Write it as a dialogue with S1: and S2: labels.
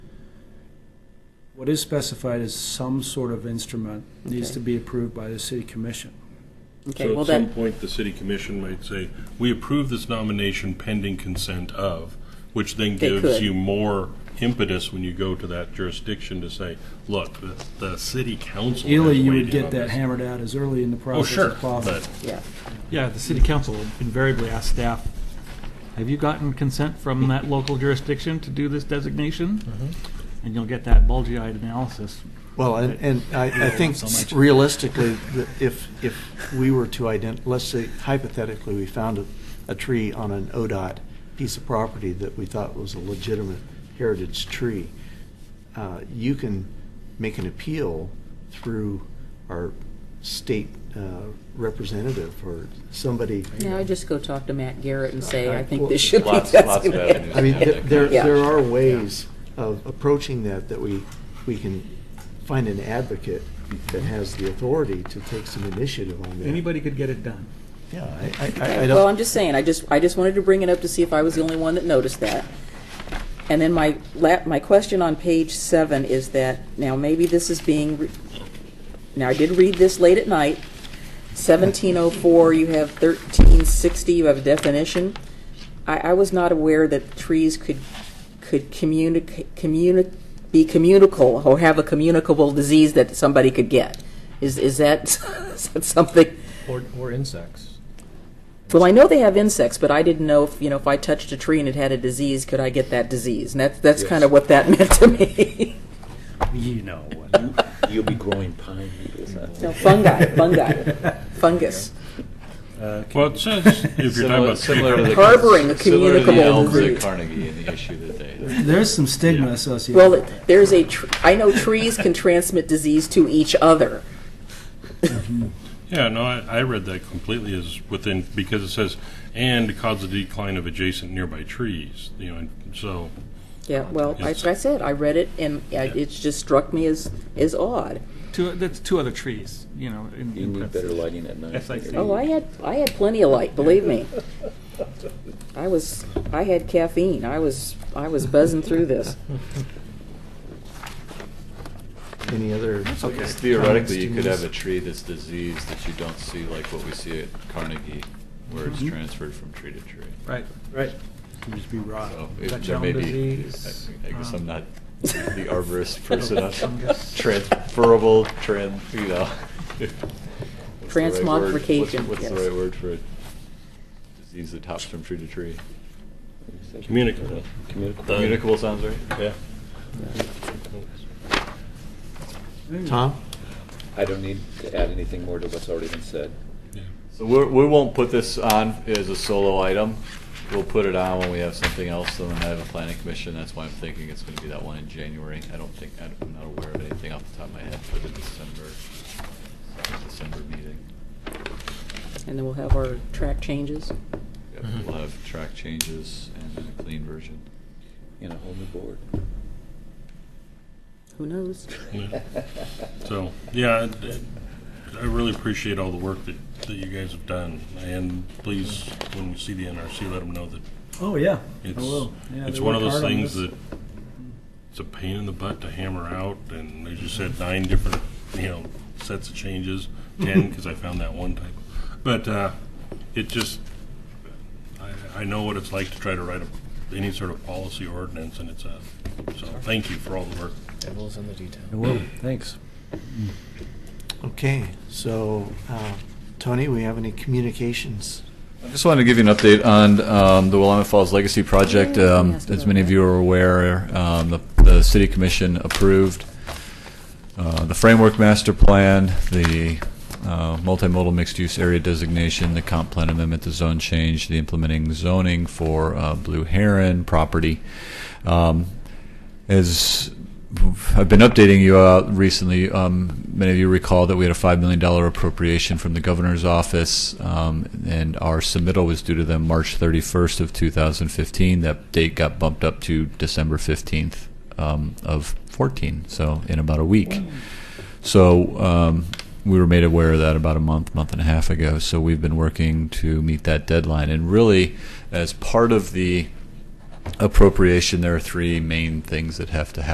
S1: What is specified is some sort of instrument needs
S2: Okay.
S1: to be approved by the city commission.
S2: Okay,
S3: So
S2: well
S3: at some
S2: then,
S3: point, the city commission might say, we approve this nomination pending consent of, which then
S2: They
S3: gives
S2: could.
S3: you more impetus when you go to that jurisdiction to say, look, the, the city council has
S1: Ideally, you would
S3: weighed in
S1: get
S3: on
S1: that
S3: this.
S1: hammered out as early in the
S3: Oh,
S1: process
S3: sure,
S1: as possible.
S3: but
S2: yeah,
S4: Yeah, the city council invariably asks staff, have you gotten consent from that local jurisdiction to do this designation? And you'll get that bulgy-eyed analysis.
S5: Well, and, and I, I think
S4: So much.
S5: realistically, that if, if we were to ident, let's say hypothetically, we found a, a tree on an ODOT piece of property that we thought was a legitimate heritage tree, uh, you can make an appeal through our state uh, representative or somebody.
S2: yeah, I just go talk to Matt Garrett and say, I think
S5: Well,
S2: this should be
S6: Lots, lots of
S2: designated.
S6: avenues.
S5: I mean,
S6: to have that
S5: th- there,
S6: kind of-
S5: there are ways of approaching that, that we, we can find an advocate that has the authority to take some initiative on that.
S4: Anybody could get it done.
S5: Yeah, I, I- I, I
S2: Well, I'm
S5: don't,
S2: just saying, I just, I just wanted to bring it up to see if I was the only one that noticed that. And then my, la- my question on page seven is that, now maybe this is being, re- now I did read this late at night. Seventeen oh four, you have thirteen sixty, you have a definition. I, I was not aware that trees could, could communicate, communi, be communicable or have a communicable disease that somebody could get. Is, is that is that something?
S7: Or, or insects.
S2: Well, I know they have insects, but I didn't know if you know if I touched a tree and it had a disease, could I get that disease? And that's that's kind of what that meant to me.
S8: You know, you'll be growing pine needles.
S2: no, fungi, fungi, fungus,
S3: Well, it says, if you're talking about tree
S6: Similar to the-
S2: harboring a
S6: Similar to the
S2: communicable
S6: elms at
S2: disease.
S6: Carnegie and the issue that they had.
S1: There's some stigma associated.
S2: Well,
S1: with
S2: it- there's a. Tr- I know trees can transmit disease to each other.
S3: Yeah, no, I, I read that completely as within, because it says, and cause the decline of adjacent nearby trees, you know, and so,
S2: Yeah. Well, I,
S3: Yes.
S2: I said I read it, and uh, it just struck me as as odd.
S4: Two, that's two other trees, you know. in-
S8: You need better lighting at night.
S4: That's like-
S8: than your-
S2: Oh, I had I had plenty of light. Believe me, I was I had caffeine. I was I was buzzing through this.
S5: any other.
S6: Because Theoretically, you could
S5: comments
S6: have
S5: to
S6: a tree that's diseased that you don't see like what we see at Carnegie, where it's transferred from tree to tree.
S4: Mm-hmm. Right.
S5: Right.
S1: it. Could just be rot.
S6: So it-
S4: Dutch
S6: there
S4: elm
S6: may be,
S4: disease,
S6: I I guess
S4: um,
S6: I'm not the arborist person on
S4: Fungus.
S6: transferable, tran, you know. What's the right word? What's-
S2: Transmogrification,
S6: What's the
S2: yes.
S6: right word for a disease that hops from tree to tree?
S3: communicable.
S8: Communicable.
S3: The-
S6: Communicable sounds right?
S3: Yeah.
S5: Tom?
S8: I don't need to add anything more to what's already been said.
S6: So we're, we won't put this on as a solo item. We'll put it on when we have something else, and then I have a planning commission. That's why I'm thinking it's gonna be that one in January. I don't think, I don't- I'm not aware of anything off the top of my head for the December, December meeting.
S2: And then we'll have our track changes.
S6: Yep,
S8: Mm-hmm.
S6: We'll have track changes and then a clean version.
S8: In a whole new board.
S2: Who knows?
S3: So, yeah, I- I really appreciate all the work that, that you guys have done, and please, when you see the NRC, let them know that
S1: Oh, yeah. I will. Yeah,
S3: it's, it's
S1: they
S3: one of
S1: work
S3: those
S1: hard on
S3: things
S1: this.
S3: that, it's a pain in the butt to hammer out, and as you said, nine different, you know, sets of changes, ten, because I found that one typo. But, uh, it just, I, I know what it's like to try to write a, any sort of policy ordinance, and it's a, so, thank you for all the work.
S7: Devil's in the detail.
S8: Thanks.
S5: Okay, so, uh, Tony, we have any communications?
S6: I just wanted to give you an update on um, the Willamette Falls Legacy Project.
S2: Yeah, I was gonna
S6: Um,
S2: ask
S6: As
S2: about
S6: many of
S2: that.
S6: you are aware, um, the the City Commission approved uh, the Framework Master Plan, the uh, multimodal mixed-use area designation, the comp plan amendment, the zone change, the implementing zoning for uh, Blue Heron property. Um, As I've been updating you uh, recently. Um, many of you recall that we had a $5 million appropriation from the governor's office, um, and our submittal was due to them March 31st of 2015. That date got bumped up to December 15th um, of 14, so in about a week. So um, we were made aware of that about a month, month and a half ago. So we've been working to meet that deadline. And really, as part of the appropriation, there are three main things that have to happen.